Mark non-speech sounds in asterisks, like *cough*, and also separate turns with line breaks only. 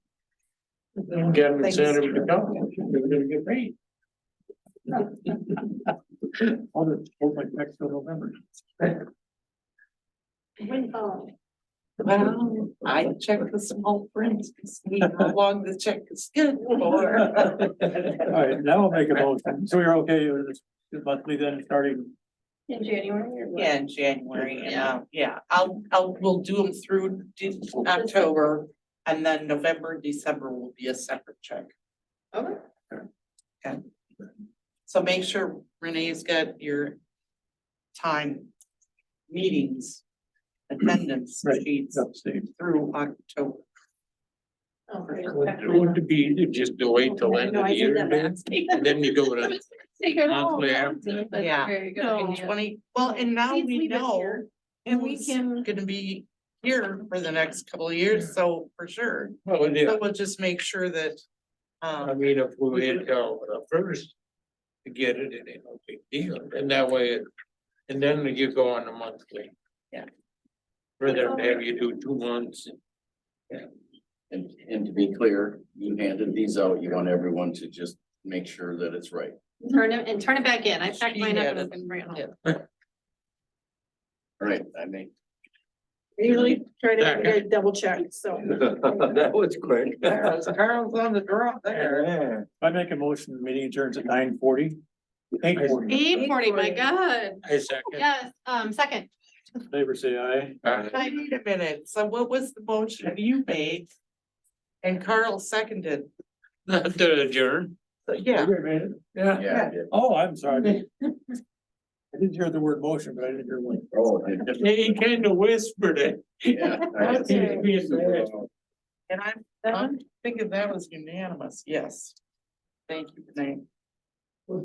Gavin
They
and
just-
Sandra would come, they're gonna get
*laughs*
paid. I'll just hold my next till November.
um,
Well, I check the small print to see
*laughs*
how long the check is good for.
All right, now I'll make a motion. So you're okay with this monthly then starting?
In January or what?
Yeah, in January, and, uh, yeah, I'll, I'll, we'll do them through de- October, and then November, and December will be a separate check.
Okay.
Okay. So make sure Renee's got your time, meetings, attendance
Right.
sheets
Upstate.
through October.
Okay.
Would be, you just do wait till end
No,
of
I
the
did
year
that
and then, and then you go
*laughs*
with it.
Take it all.
Monthly after.
That's
Yeah.
very good
In
idea.
Twenty, well, and now
Please
we
leave it
know
here, and we
who's
can-
Gonna be here for the next couple of years, so for sure.
Well, yeah,
So we'll just make sure that,
I
um,
mean, if we had gone with the first to get it, it ain't no big deal. And that way, it- and then you go on a monthly.
Yeah.
Rather than have you do two *laughs* months.
And, and to be clear, you handed these out, you want everyone to just make sure that it's right.
Turn it and turn it back in. I packed
She
mine up
had
and
it.
I've been bringing
Yeah.
home.
All right, I mean,
Usually try
to every day
double check, so.
That was quick.
Carol's Carol's on the draw there.
I make a motion, the meeting adjourns at nine forty. Eight forty,
Eight forty, my God.
I second.
Yes, um, second.
favor say aye.
I need a minute, so what was the motion you made? And Carl seconded,
Not to adjourn.
so yeah,
You made it?
Yeah.
yeah, I did.
Oh, I'm sorry. I didn't hear the word motion, but I didn't hear one.
oh, I
*laughs*
did.
He kind of whispered it.
yeah. I did.
*laughs* He's being bad.
and I'm, I'm thinking that was unanimous, yes. Thank you, Renee.